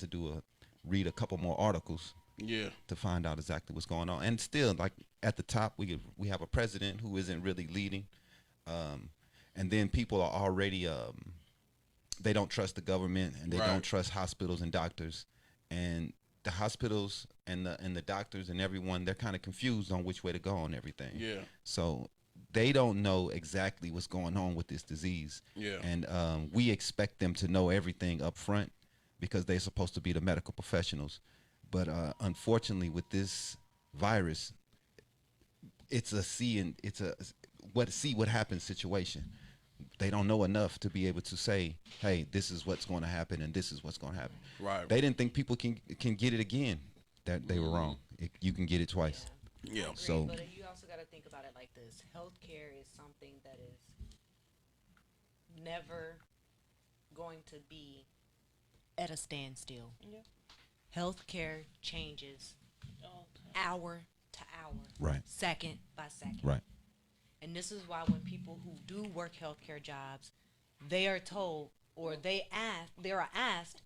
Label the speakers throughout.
Speaker 1: to do a read a couple more articles
Speaker 2: Yeah.
Speaker 1: to find out exactly what's going on. And still, like at the top, we we have a president who isn't really leading, um, and then people are already um, they don't trust the government and they
Speaker 2: Right.
Speaker 1: don't trust hospitals and doctors, and the hospitals and the and the doctors and everyone they're kind of confused on which way to go on everything.
Speaker 2: Yeah.
Speaker 1: So they don't know exactly what's going on with this disease.
Speaker 2: Yeah.
Speaker 1: And um, we expect them to know everything up front because they're supposed to be the medical professionals. But uh, unfortunately, with this virus, it's a see and it's a what see what happens situation. They don't know enough to be able to say, "Hey, this is what's going to happen, and this is what's going to happen."
Speaker 2: Right.
Speaker 1: They didn't think people can can get it again. That they were wrong. It, you can get it twice.
Speaker 2: Yeah.
Speaker 3: Agree,
Speaker 1: So-
Speaker 3: but you also got to think about it like this: healthcare is something that is never going to be at a standstill.
Speaker 4: Yeah.
Speaker 3: Healthcare changes hour to hour,
Speaker 1: Right.
Speaker 3: second by second.
Speaker 1: Right.
Speaker 3: And this is why when people who do work healthcare jobs, they are told or they ask, they are asked,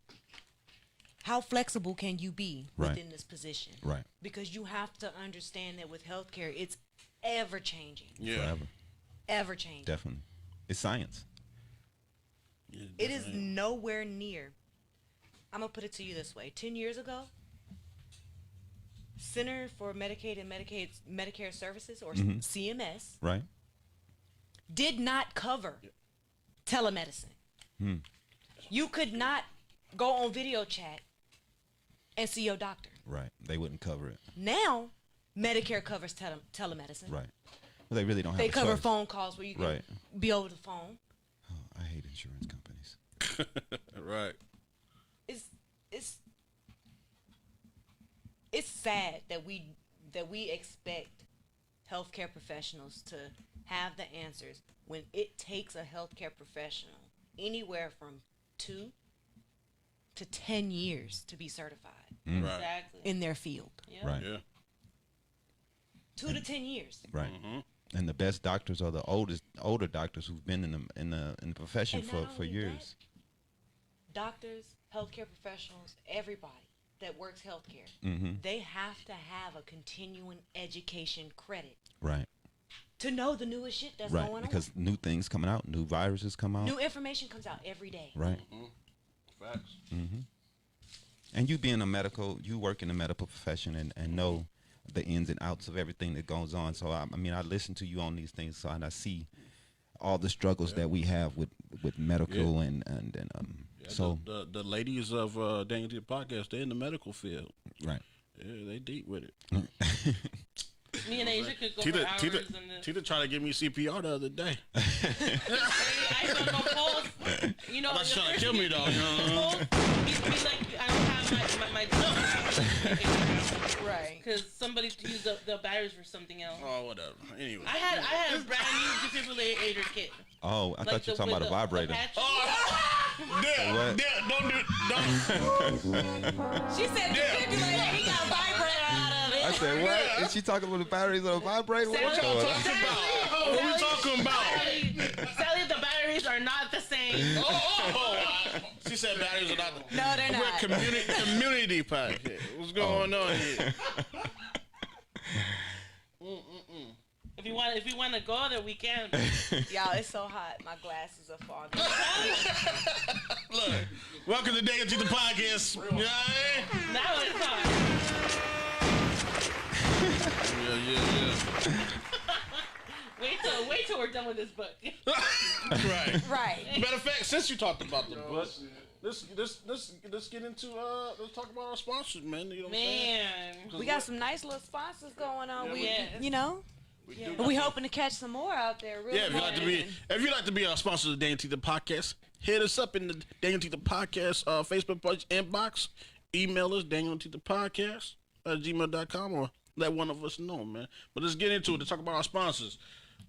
Speaker 3: how flexible can you be
Speaker 1: Right.
Speaker 3: within this position?
Speaker 1: Right.
Speaker 3: Because you have to understand that with healthcare, it's ever changing,
Speaker 2: Yeah.
Speaker 1: Forever.
Speaker 3: ever changing.
Speaker 1: Definitely. It's science.
Speaker 2: Yeah,
Speaker 3: It is
Speaker 2: definitely.
Speaker 3: nowhere near. I'm gonna put it to you this way: ten years ago, Center for Medicaid and Medicaid Medicare Services, or
Speaker 1: Mm-hmm.
Speaker 3: CMS,
Speaker 1: Right.
Speaker 3: did not cover telemedicine.
Speaker 1: Hmm.
Speaker 3: You could not go on video chat and see your doctor.
Speaker 1: Right. They wouldn't cover it.
Speaker 3: Now, Medicare covers tele- telemedicine.
Speaker 1: Right. Well, they really don't have.
Speaker 3: They
Speaker 1: a
Speaker 3: cover
Speaker 1: choice.
Speaker 3: phone calls where you can
Speaker 1: Right.
Speaker 3: be over the phone.
Speaker 1: Oh, I hate insurance companies.
Speaker 2: right.
Speaker 3: it's it's it's sad that we that we expect healthcare professionals to have the answers when it takes a healthcare professional anywhere from two to ten years to be certified
Speaker 1: Mm.
Speaker 2: Right.
Speaker 4: Exactly.
Speaker 3: in their field.
Speaker 4: Yeah.
Speaker 1: Right.
Speaker 2: Yeah.
Speaker 3: Two to ten years.
Speaker 1: Right.
Speaker 4: Mm-hmm.
Speaker 1: And the best doctors are the oldest, older doctors who've been in the in the in the profession
Speaker 3: And
Speaker 1: for
Speaker 3: not
Speaker 1: for
Speaker 3: only
Speaker 1: years.
Speaker 3: that, doctors, healthcare professionals, everybody that works healthcare,
Speaker 1: Mm-hmm.
Speaker 3: they have to have a continuing education credit
Speaker 1: Right.
Speaker 3: to know the newest shit that's
Speaker 1: right.
Speaker 3: going
Speaker 1: Because new things coming out, new viruses come
Speaker 2: uh,
Speaker 1: out.
Speaker 3: on. New information comes out every day.
Speaker 1: right.
Speaker 4: Mm-hmm.
Speaker 2: Facts.
Speaker 1: Mm, And you being a medical, you work in the medical profession and, and know the ins and outs of everything that goes on. So I, I mean, I listen to you on these things, so and I see all the struggles that we have with with medical and and, and um.
Speaker 2: Yeah,
Speaker 1: so
Speaker 2: the, the the ladies of uh, Daniel T podcast, they're in the medical field.
Speaker 1: right.
Speaker 2: Yeah, they deep with it.
Speaker 4: Me and Asia could go for
Speaker 2: Tita,
Speaker 4: hours
Speaker 2: Tita,
Speaker 4: and then Oh,
Speaker 2: Tita tried to give me CPR the other day.
Speaker 4: I saw my pulse. You know,
Speaker 2: That's
Speaker 4: the
Speaker 2: trying to
Speaker 4: first
Speaker 2: kill me though. You know?
Speaker 4: pulse, he'd be like, I don't have my my, my jump
Speaker 3: Right.
Speaker 4: because somebody used up the batteries for something else.
Speaker 2: oh, whatever. Anyway.
Speaker 4: I had I had a brand new defibrillator kit.
Speaker 1: Oh, I thought you were talking about a vibrator.
Speaker 4: patch-
Speaker 2: yeah,
Speaker 1: What?
Speaker 2: yeah, Oh, don't do don't
Speaker 3: She said defibrillator. He got vibrator out of it.
Speaker 1: I said, what? Is she talking about the batteries on a vibrator? What's
Speaker 4: y'all
Speaker 1: going on?
Speaker 2: talk about. What we talking about?
Speaker 4: Sally, Sally, the batteries are not the same.
Speaker 2: Oh, oh, oh. She said batteries are not the
Speaker 3: No, they're
Speaker 2: We're
Speaker 3: not.
Speaker 2: community community podcast. What's going
Speaker 1: Oh.
Speaker 2: on here?
Speaker 4: If you want, if we want to go there, we can.
Speaker 3: Y'all, it's so hot. My glasses are fogging.
Speaker 2: Look, welcome to Daniel T the podcast. You know what I mean?
Speaker 4: Now it's hot.
Speaker 2: Yeah, yeah,
Speaker 4: Wait till wait till we're done with this book.
Speaker 2: yeah. right.
Speaker 3: Right.
Speaker 2: Matter of fact, since you talked about the book, let's let's let's let's get into uh let's talk about our sponsors, man. You know what
Speaker 4: Man,
Speaker 2: I'm saying?
Speaker 3: We got some nice little sponsors going on. We,
Speaker 4: Yeah.
Speaker 3: you know,
Speaker 2: We
Speaker 4: yeah.
Speaker 2: do
Speaker 3: we hoping to catch some more out there. Really
Speaker 2: Yeah, if you'd like to be
Speaker 3: hoping.
Speaker 2: if you'd like to be our sponsor of the Daniel Teeter Podcast, hit us up in the Daniel Teeter Podcast uh, Facebook page inbox. Email us Daniel Teeter Podcast at gmail.com or let one of us know, man. But let's get into it. Let's talk about our sponsors.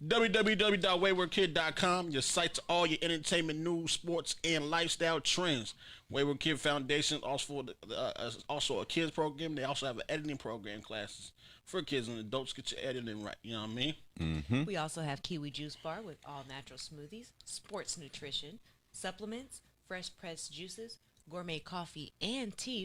Speaker 2: www.waywardkid.com, your site to all your entertainment news, sports, and lifestyle trends. Wayward Kid Foundation, also, for the, uh, also a kids program. They also have an editing program classes for kids and adults. Get your editing right, you know what I mean? Hmm?
Speaker 3: We also have Kiwi Juice Bar with all natural smoothies, sports nutrition, supplements, fresh pressed juices, gourmet coffee and tea